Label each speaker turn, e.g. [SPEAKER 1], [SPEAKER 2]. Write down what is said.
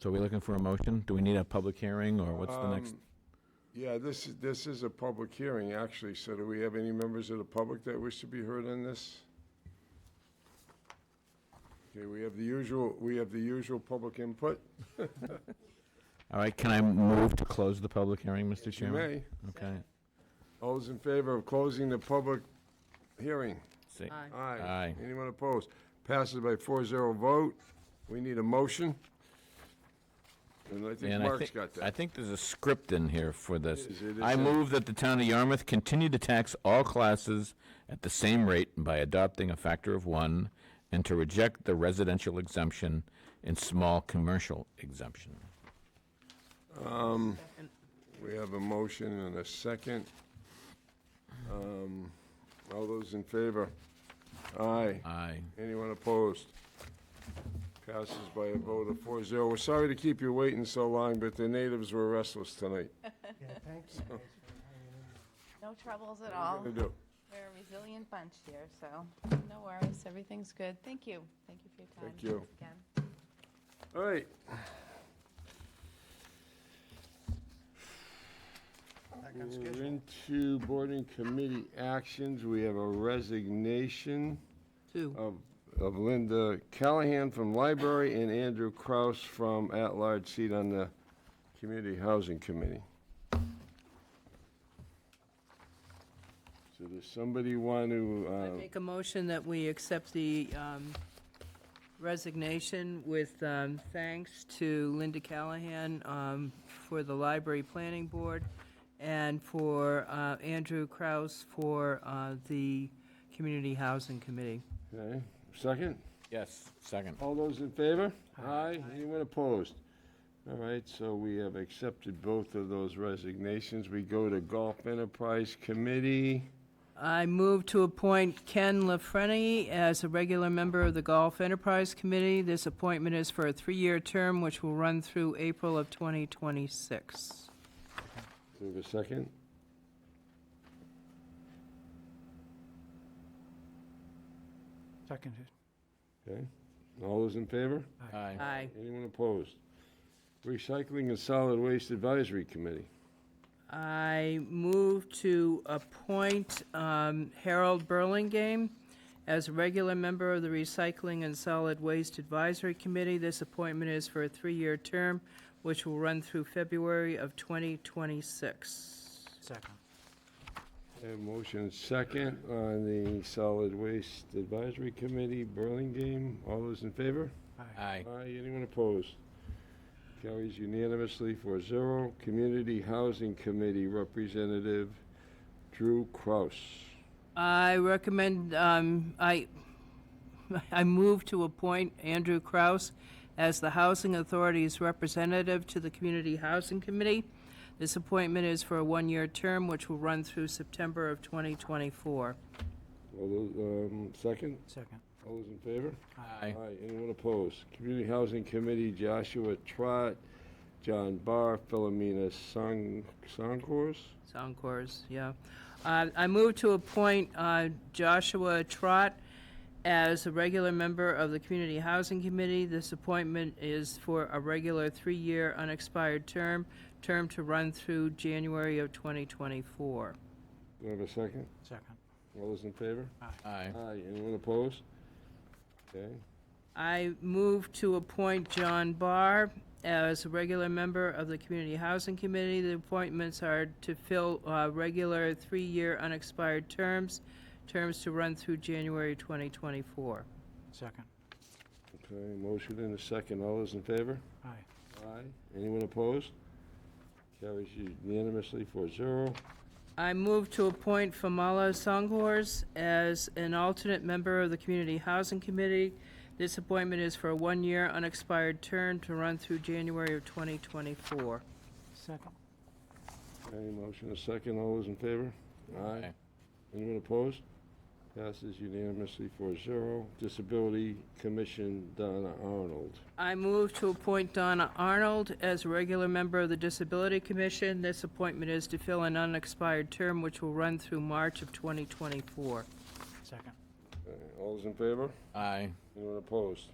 [SPEAKER 1] So are we looking for a motion? Do we need a public hearing, or what's the next?
[SPEAKER 2] Um, Yeah, this, is- this is a public hearing, actually, so do we have any members of the public that wish to be heard on this? Okay, we have the usual, we have the usual public input.
[SPEAKER 1] All right, can I move to close the public hearing, Mr.
[SPEAKER 2] You
[SPEAKER 1] Chairman?
[SPEAKER 2] may.
[SPEAKER 1] Okay.
[SPEAKER 2] All those in favor of closing the public hearing?
[SPEAKER 1] See-
[SPEAKER 3] Aye.
[SPEAKER 2] Aye.
[SPEAKER 1] Aye.
[SPEAKER 2] Anyone opposed? Passes by four zero vote. We need a motion. And I think
[SPEAKER 1] And I
[SPEAKER 2] Mark's
[SPEAKER 1] think,
[SPEAKER 2] got
[SPEAKER 1] I
[SPEAKER 2] that.
[SPEAKER 1] think there's a script in here for this.
[SPEAKER 2] is, it is
[SPEAKER 1] I
[SPEAKER 2] in-
[SPEAKER 1] move that the town of Yarmouth continue to tax all classes at the same rate by adopting a factor of one, and to reject the residential exemption and small commercial exemption.
[SPEAKER 2] We have a motion and a second. Um, All those in favor? Aye.
[SPEAKER 1] Aye.
[SPEAKER 2] Anyone opposed? Passes by a vote of four zero. We're sorry to keep you waiting so long, but the natives were restless tonight.
[SPEAKER 4] Yeah, thank you guys for hanging in.
[SPEAKER 3] No troubles at
[SPEAKER 2] What are
[SPEAKER 3] all.
[SPEAKER 2] you gonna do?
[SPEAKER 3] We're a resilient bunch here, so no worries. Everything's good. Thank you. Thank you for your time.
[SPEAKER 2] Thank you.
[SPEAKER 3] once Again.
[SPEAKER 2] All right.
[SPEAKER 4] Back on
[SPEAKER 2] We're
[SPEAKER 4] schedule.
[SPEAKER 2] into boarding committee actions. We have a resignation of of Linda Callahan from Library and Andrew Kraus from at-large seat on the Community Housing Committee. So does somebody want to,
[SPEAKER 5] I
[SPEAKER 2] uh,
[SPEAKER 5] make a motion that we accept the um, resignation with um, thanks to Linda Callahan um, for the Library Planning Board and for uh, Andrew Kraus for uh, the Community Housing Committee.
[SPEAKER 2] okay, second?
[SPEAKER 1] Yes, second.
[SPEAKER 2] All those in favor? Aye. Anyone opposed? All right, so we have accepted both of those resignations. We go to Golf Enterprise Committee.
[SPEAKER 5] I move to appoint Ken LaFrenney as a regular member of the Golf Enterprise Committee. This appointment is for a three-year term, which will run through April of 2026.
[SPEAKER 2] Do we have a second?
[SPEAKER 4] Seconded.
[SPEAKER 2] Okay. All those in favor?
[SPEAKER 1] Aye.
[SPEAKER 5] Aye.
[SPEAKER 2] Anyone opposed? Recycling and Solid Waste Advisory Committee.
[SPEAKER 5] I move to appoint um, Harold Burlingame as a regular member of the Recycling and Solid Waste Advisory Committee. This appointment is for a three-year term, which will run through February of 2026.
[SPEAKER 4] Second.
[SPEAKER 2] I have motion second on the Solid Waste Advisory Committee, Burlingame. All those in favor?
[SPEAKER 1] Aye.
[SPEAKER 2] Aye, anyone opposed? Carries unanimously for zero. Community Housing Committee Representative Drew Kraus.
[SPEAKER 5] I recommend, um, I, I move to appoint Andrew Kraus as the Housing Authority's representative to the Community Housing Committee. This appointment is for a one-year term, which will run through September of 2024.
[SPEAKER 2] All those, um, second,
[SPEAKER 4] Second.
[SPEAKER 2] all those in favor?
[SPEAKER 1] Aye.
[SPEAKER 2] anyone opposed? Community Housing Committee Joshua Trot, John Barr, Philomena Song, Songcours?
[SPEAKER 5] Sound Corps, yeah. Uh, I move to appoint uh, Joshua Trot as a regular member of the Community Housing Committee. This appointment is for a regular three-year unexpired term, term to run through January of 2024.
[SPEAKER 2] Do I have a second?
[SPEAKER 4] Second.
[SPEAKER 2] All those in favor?
[SPEAKER 1] Aye.
[SPEAKER 2] Aye, anyone opposed? Okay,
[SPEAKER 5] I move to appoint John Barr as a regular member of the Community Housing Committee. The appointments are to fill uh, regular three-year unexpired terms, terms to run through January 2024.
[SPEAKER 4] Second.
[SPEAKER 2] okay, motion and a second. All those in favor?
[SPEAKER 4] Aye.
[SPEAKER 2] Aye. Anyone opposed? Carries unanimously for zero.
[SPEAKER 5] I move to appoint Famala Songhors as an alternate member of the Community Housing Committee. This appointment is for a one-year unexpired term to run through January of 2024.
[SPEAKER 4] Second.
[SPEAKER 2] Okay, motion a second. All those in favor?
[SPEAKER 1] Aye.
[SPEAKER 2] Anyone opposed? Passes unanimously for zero. Disability Commission, Donna Arnold.
[SPEAKER 5] I move to appoint Donna Arnold as a regular member of the Disability Commission. This appointment is to fill an unexpired term which will run through March of 2024.
[SPEAKER 4] Second.
[SPEAKER 2] Okay, All those in favor?
[SPEAKER 1] Aye.
[SPEAKER 2] Anyone opposed?